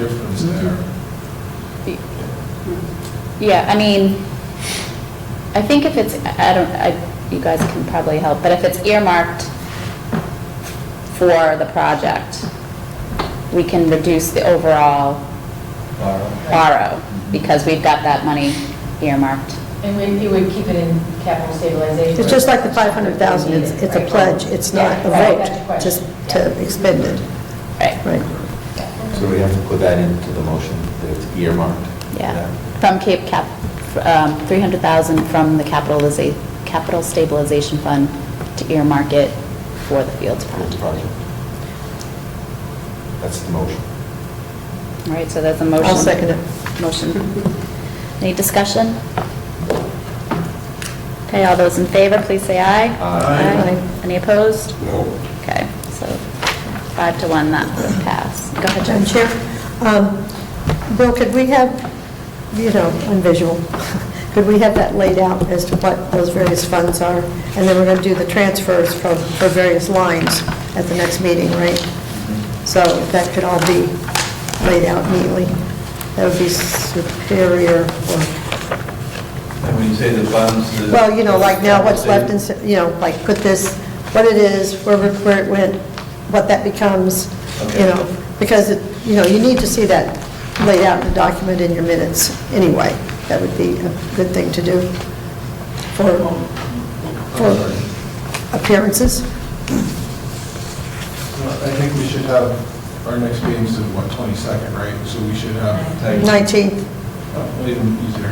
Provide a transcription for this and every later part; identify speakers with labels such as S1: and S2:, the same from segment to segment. S1: difference there.
S2: Yeah, I mean, I think if it's, I I don't, I, you guys can probably help, but if it's earmarked for the project, we can reduce the overall
S1: Laura?
S2: borrow, because we've got that money earmarked.
S3: And we- you would keep it in capital stabilization?
S4: It's just like the 500,000, it's it's a pledge, it's not a
S3: Yeah, right, that's the
S4: vote,
S3: question.
S4: just to expend it,
S2: Right,
S4: right?
S5: So we have to put that into the motion, that it's earmarked?
S2: yeah. From Cape Cap, um, 300,000 from the capitaliza, capital stabilization fund to earmark it for the fields
S5: For the
S2: project.
S5: project. That's the motion.
S2: All right, so that's a motion.
S4: I'll second it.
S2: Motion. Any discussion? Okay, all those in favor, please say aye.
S5: Aye.
S2: Any opposed?
S5: No.
S2: Okay, so five to one, that would pass. Go ahead, Jen.
S4: Madam Chair, um, Bill, could we have, you know, on visual, could we have that laid out as to what those various funds are? And then we're going to do the transfers from, for various lines at the next meeting, right? So if that could all be laid out neatly, that would be superior, or,
S1: And when you say the funds, the...
S4: well, you know, like now what's left in, you know, like put this, what it is, where, where it went, what that becomes, you
S1: Okay.
S4: know, because, it- you know, you need to see that laid out in the document in your minutes anyway. That would be a good thing to do for, for appearances.
S1: Well, I think we should have, our next meeting's the, what, 22nd, right? So we should have...
S4: 19th,
S1: Oh, well, Even easier.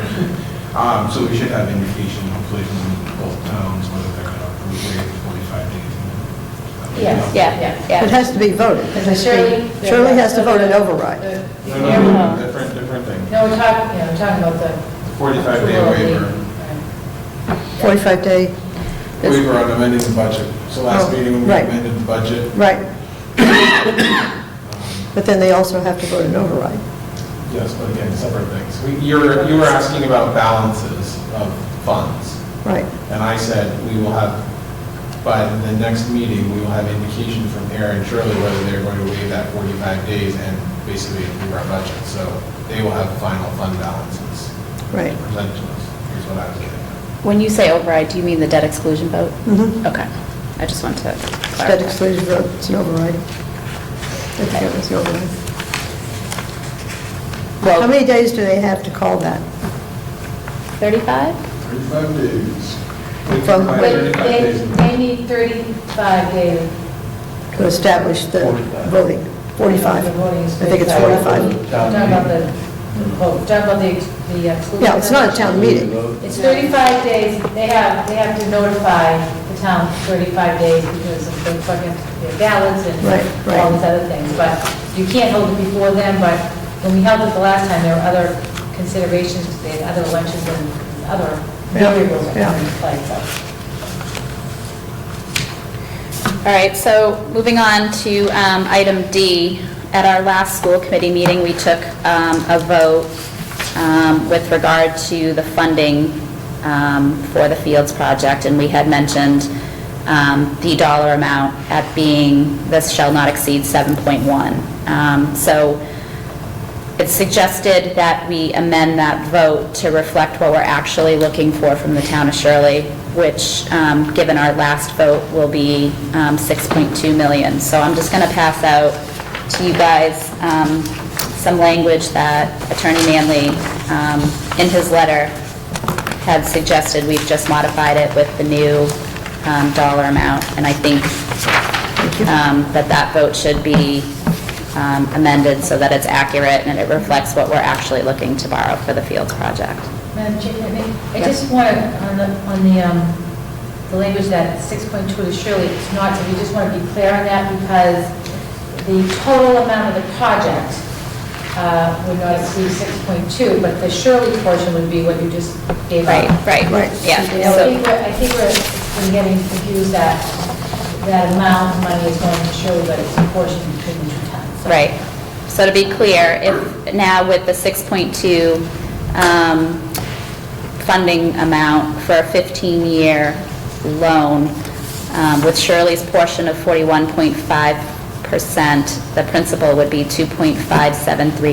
S1: Um, So we should have indication, hopefully, from both towns, whether they're going to approve it in 45 days. and then-
S3: Yes.
S2: Yeah, yeah.
S4: it has to be voted. It has to be-
S3: Shirley? Uh,
S4: Shirley has to
S3: the-
S4: vote an
S3: the-
S4: override.
S3: the-
S1: No, no,
S3: No,
S1: no, different, different thing.
S3: we're talking, yeah, we're talking about the.
S1: 45 day
S3: Right.
S1: waiver.
S4: 45-day,
S1: We were on amending the budget. So last
S4: Oh,
S1: meeting, when we
S4: right.
S1: amended the budget.
S4: right.
S1: um,
S4: But then they also have to vote an override.
S1: Yes, but again, separate things. We- You were, you were asking about balances of funds.
S4: Right,
S1: And I said, we will have, by the next meeting, we will have indication from Aaron and Shirley whether they're going to waive that 45 days and basically approve our budget. So they will have final fund balances
S4: right.
S1: presented to us, is what I was getting at.
S2: When you say override, do you mean the debt exclusion vote?
S4: Mhm.
S2: Okay, I just want to
S4: Debt
S2: clarify.
S4: exclusion vote, it's an override. Okay, it was an override. How
S2: Well,
S4: many days do they have to call that?
S2: 35?
S1: 35 days. We
S4: From-
S1: can buy
S3: But
S1: 35
S3: they,
S1: days.
S3: they need 35 days.
S4: To establish the
S5: 45.
S4: voting,
S3: The
S4: 45.
S3: voting is
S4: I think it's
S3: 35.
S4: 45.
S3: Talking about the, the vote, talking about the, the exclusion.
S4: Yeah, it's not a town meeting.
S3: It's 35 days, they have, they have to notify the town 35 days because of the fucking, their ballots and
S4: Right, right.
S3: all these other things, but you can't hold it before then, but when we held it the last time, there were other considerations, they had other elections and other
S4: Yeah,
S3: variables that
S4: yeah.
S3: come into play, so.
S2: All right, so moving on to um, item D. At our last school committee meeting, we took um, a vote um, with regard to the funding um, for the Fields project, and we had mentioned um, the dollar amount at being, this shall not exceed 7.1. Um, So it's suggested that we amend that vote to reflect what we're actually looking for from the town of Shirley, which, um, given our last vote, will be um, 6.2 million. So I'm just going to pass out to you guys um, some language that Attorney Manley, um, in his letter, had suggested. We've just modified it with the new um, dollar amount, and I think um, that that vote should be um, amended so that it's accurate and it reflects what we're actually looking to borrow for the Fields project.
S3: Madam Chair, can I make- I
S2: Yeah.
S3: just want to, on the, on the, um, the language that 6.2 is surely, it's not, we just want to be clear on that because the total amount of the project uh, would not exceed 6.2, but the Shirley portion would be what you just gave up.
S2: Right, right,
S4: Right.
S2: yeah.
S3: You know, I
S2: so-
S3: think we're, I think we're we're getting confused that, that amount of money is going to Shirley, but it's a portion between the two towns. so.
S2: Right. So to be clear, if, now with the 6.2 um, funding amount for a 15-year loan, um, with Shirley's portion of 41.5%, the principal would be 2.573